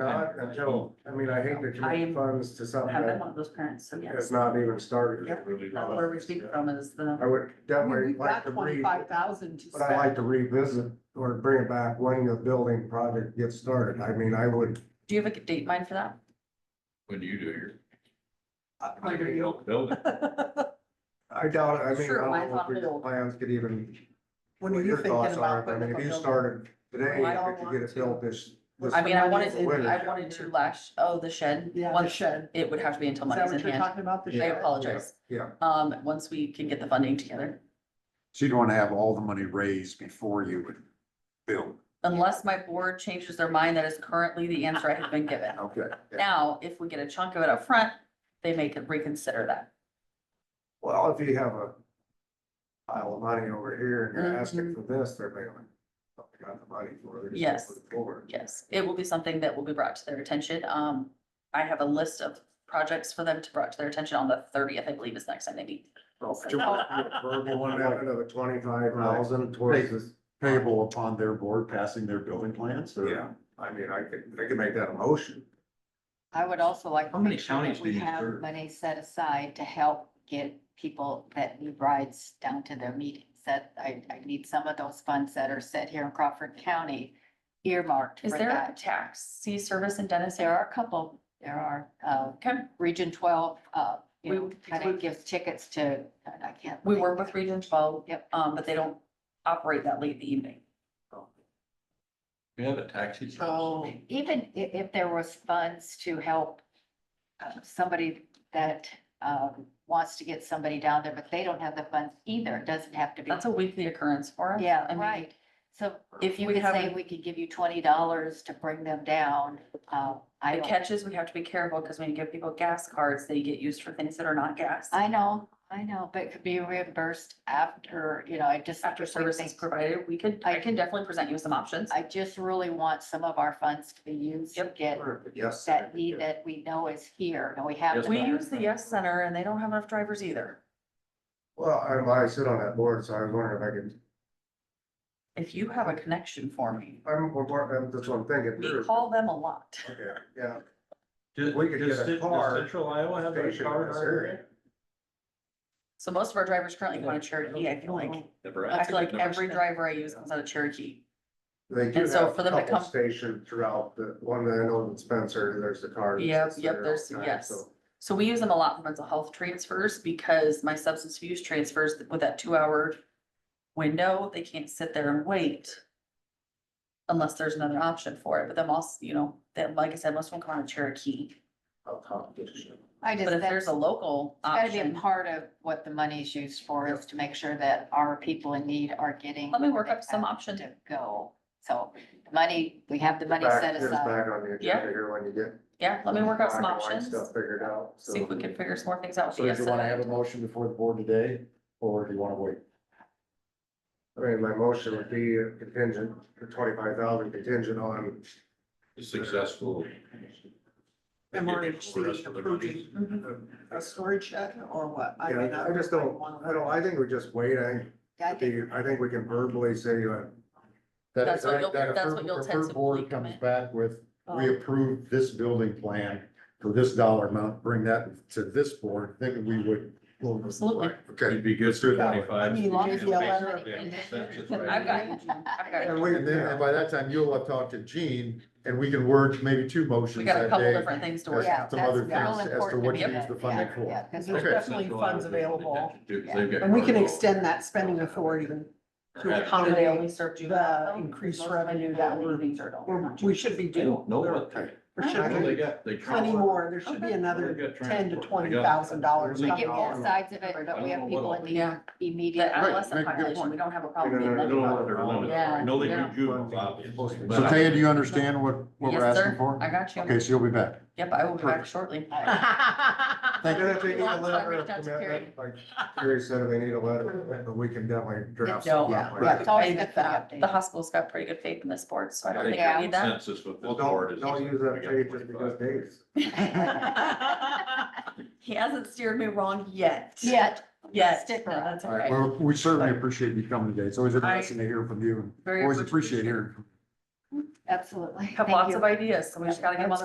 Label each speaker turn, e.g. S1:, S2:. S1: or not until, I mean, I hate to commit
S2: I
S1: funds to something
S2: Have been
S1: that
S2: one of those parents, so yes,
S1: has not even started.
S2: Yep. that's where we speak from is
S1: I
S2: the.
S1: would
S3: I mean,
S1: definitely
S3: we've
S1: like
S3: got
S1: to re,
S3: twenty-five thousand to
S1: but I like
S3: spend.
S1: to revisit or bring it back when the building project gets started. I mean, I would,
S2: Do you have a date in mind for that?
S4: When you do your.
S3: Uh, under you.
S4: Building.
S1: I doubt, it. I mean,
S2: Sure,
S1: I
S2: mine's
S1: don't know if
S2: on
S1: your
S2: hold.
S1: plans could even,
S3: When are
S1: what
S3: you
S1: your
S3: thinking
S1: thoughts
S3: about?
S1: are. I
S3: putting
S1: mean,
S3: up
S1: if
S3: a
S1: you
S3: building?
S1: started today,
S3: Well, I don't
S1: if you
S3: want
S1: get it
S3: to.
S1: built this, this
S2: I mean, I wanted,
S3: Money's
S2: to- I
S1: winter.
S2: wanted to lash, oh, the shed.
S3: Yeah, the
S2: Once-
S3: shed.
S2: It would have to be until
S3: Is that
S2: money's in
S3: what you're
S2: hand.
S3: talking about? The
S2: I
S3: shed?
S2: apologize.
S1: yeah.
S2: Um, once we can get the funding together,
S5: So you'd want to have all the money raised before you would build.
S2: unless my board changes their mind, that is currently the answer I have been given.
S5: Okay.
S2: Now, if we get a chunk of it up front, they may could reconsider that.
S1: Well, if you have a pile of money over here and you're asking for this, they're going, I got the money for it. they're just gonna
S2: Mm-hmm. Yes.
S1: put it forward."
S2: Yes, it will be something that will be brought to their attention. Um, I have a list of projects for them to brought to their attention on the thirtieth, I believe is next time they meet.
S5: Do you want to do a verbal one, like,
S1: Another twenty-five thousand towards this,
S5: Payable upon their board passing their building plans or?
S1: yeah, I mean, I could, I could make that a motion.
S6: I would also like
S4: How
S6: to
S4: many
S6: make sure
S4: counties
S6: that
S4: do
S6: we
S4: you
S6: have
S4: serve?
S6: money set aside to help get people that need rides down to their meetings. That I, I need some of those funds that are set here in Crawford County earmarked
S2: Is
S6: for
S2: there a
S6: that.
S2: taxi service in Dennis?
S6: There are a couple, there are, uh,
S2: Okay,
S6: Region twelve, uh, you know,
S2: We-
S6: kind
S2: we-
S6: of gives tickets to, I can't.
S2: we
S6: think.
S2: work with Region Twelve.
S6: Yep.
S2: Um, but they don't operate that late in the evening.
S4: We have a taxi. service.
S6: So even i- if there was funds to help uh, somebody that, um, wants to get somebody down there, but they don't have the funds either, it doesn't have to be.
S2: That's a weekly occurrence for us. I
S6: Yeah,
S2: mean,
S6: right. So
S2: If
S6: if
S2: you
S6: you could
S2: have
S6: say
S2: a-
S6: we could give you twenty dollars to bring them down, uh, I
S2: The
S6: don't,
S2: catches, we have to be careful because when you give people gas cards, they get used for things that are not gas.
S6: I know, I know, but it could be reimbursed after, you know, I just.
S2: After
S6: we
S2: services
S6: think-
S2: provided, we could, I can definitely present you with some options.
S6: I just really want some of our funds to be used to
S2: Yep.
S6: get
S1: Yes. I
S6: that
S1: could
S6: need
S1: get-
S6: that we know is here and we have.
S4: Yes,
S6: it
S2: We
S6: there.
S2: use the Yes Center and they don't have enough drivers either.
S1: Well, I, I sit on that board, so I was wondering if I could,
S2: If you have a connection for me,
S1: I'm, I'm- I'm, that's what I'm thinking.
S2: we
S1: through.
S2: call them a lot.
S1: Yeah, Yeah,
S4: Does-
S1: We could
S4: does
S1: get a
S4: Cent- does
S1: car
S4: Central Iowa Oh, have a
S1: station
S4: car
S1: in this
S4: hire
S1: area.
S4: rate?
S2: So most of our drivers currently go to Cherokee. I feel
S4: Oh,
S2: like, I
S4: Nebraska.
S2: feel like every
S4: Nebraska.
S2: driver I use comes out of Cherokee.
S1: they do
S2: And so
S1: have
S2: for
S1: a
S2: them to
S1: couple
S2: come-
S1: stationed throughout the, one that I know in Spencer, there's the car. that
S2: Yep,
S1: sits
S2: yep,
S1: there all
S2: there's-
S1: the time,
S2: yes.
S1: so-
S2: So we use them a lot for mental health transfers because my substance abuse transfers with that two hour window, they can't sit there and wait. Unless there's another option for it, but then also, you know, that, like I said, most of them come out of Cherokee,
S1: I'll talk to you.
S6: I just.
S2: but if
S6: that's-
S2: there's a local
S6: It's gotta be a
S2: option.
S6: part of what the money's used for is to make sure that our people in need are getting.
S2: Let me work
S6: where they
S2: up some
S6: have
S2: options.
S6: To go. So the money, we have the money
S1: Back-
S6: set
S1: it's
S6: aside.
S1: Back on the
S2: Yeah.
S1: agenda here when you get.
S2: Yeah, let me work out some
S1: black and white
S2: options,
S1: Stuff figured out, so.
S2: see if we can figure some more things out. with
S5: So
S2: the
S5: do
S2: Yes
S5: you want to
S2: Center.
S5: have a motion before the board today, or do you want to wait?
S1: I mean, my motion would be a contingent, twenty-five thousand contingent on.
S4: Successful.
S3: MRHC approving
S2: Mhm.
S3: a storage shed or what?
S1: Yeah,
S3: mean,
S1: I just don't, I don't, I think we just wait, I,
S6: I
S1: I
S6: think
S1: think, I think we can verbally say, uh,
S5: That-
S2: That's what
S5: that-
S2: you'll-
S5: that
S2: that's
S5: appro-
S2: what you'll
S5: approved
S2: tentatively
S5: Board comes
S2: commit.
S5: back with, we
S2: Um,
S5: approve this building plan for this dollar amount, bring that to this board, then we would.
S2: Absolutely.
S5: Okay.
S4: be good
S5: for
S3: I mean, long as you allow it.
S2: I've got, I've got,
S1: and we,
S5: And then by that time, you'll have talked to Gene, and we can work maybe two
S2: we
S5: motions
S2: got a
S5: that
S2: couple
S5: day.
S2: different things to
S5: as
S2: work
S6: Yeah.
S2: out.
S5: Some
S6: that's
S5: other
S6: real
S5: things as to
S6: important
S5: what
S2: to
S5: you
S2: me.
S5: use the funding
S6: Yeah, yeah,
S5: for.
S6: 'cause
S3: There's
S5: Okay.
S3: definitely funds available. And we can extend that spending authority to
S2: Do they only
S3: accommodate
S2: serve juvenile?
S3: the
S2: though?
S3: increased
S2: Most
S3: revenue that we're,
S2: meetings are adult.
S3: we're- we should be due.
S4: No,
S3: There
S4: what kind?
S3: should
S4: Well,
S3: be
S4: they got, they.
S3: plenty more. There should be
S4: They
S3: another
S4: got
S3: ten to
S4: transport. They
S3: twenty
S4: got-
S3: thousand dollars.
S6: We
S1: Not
S6: get
S1: all of
S6: both
S1: them.
S6: sides of it, but
S4: I
S6: we have
S4: don't know
S6: people
S4: what
S6: in
S4: all-
S6: need
S2: Yeah.
S6: immediately.
S2: The adolescent
S5: make a good
S2: population,
S5: point.
S2: we don't have a problem.
S1: No, no, no,
S2: with
S4: They
S2: that.
S4: don't want their limit.
S2: Yeah,
S4: I know they
S2: yeah.
S4: do juveniles, obviously.
S5: So
S4: but I-
S5: Taya, do you understand what, what we're
S2: Yes,
S5: asking
S2: sir,
S5: for?
S2: I got you.
S5: Okay, so you'll be back.
S2: Yep, I will be back shortly.
S5: Thank
S1: And
S5: you.
S1: if they need
S2: Yeah,
S1: a
S2: so I
S1: letter of
S2: reached out to Carrie.
S1: commitment, like Carrie said, if they need a letter, but we can definitely draft.
S2: No.
S1: something
S3: Yeah,
S1: like
S3: yeah.
S6: It's always
S2: I-
S6: good for an
S2: The
S6: update.
S2: hospital's got pretty good faith in this board, so I
S4: I
S2: don't
S4: think
S2: think I
S6: Yeah.
S2: need that.
S4: consensus with
S1: Well,
S4: this board
S1: don't,
S4: is.
S1: don't use that
S4: we got
S1: page just because
S4: 25.
S1: dates.
S2: He hasn't steered me wrong yet.
S6: Yet,
S2: Yet,
S6: Stick
S2: No,
S6: around.
S2: that's all
S5: All right,
S2: right.
S5: well, we certainly appreciate you coming today. It's always interesting to hear from you. and
S2: Very
S5: Always
S2: appreciative.
S5: appreciate hearing.
S6: Absolutely.
S2: have
S6: Thank
S2: lots
S6: you.
S2: of ideas, so we just gotta get them on the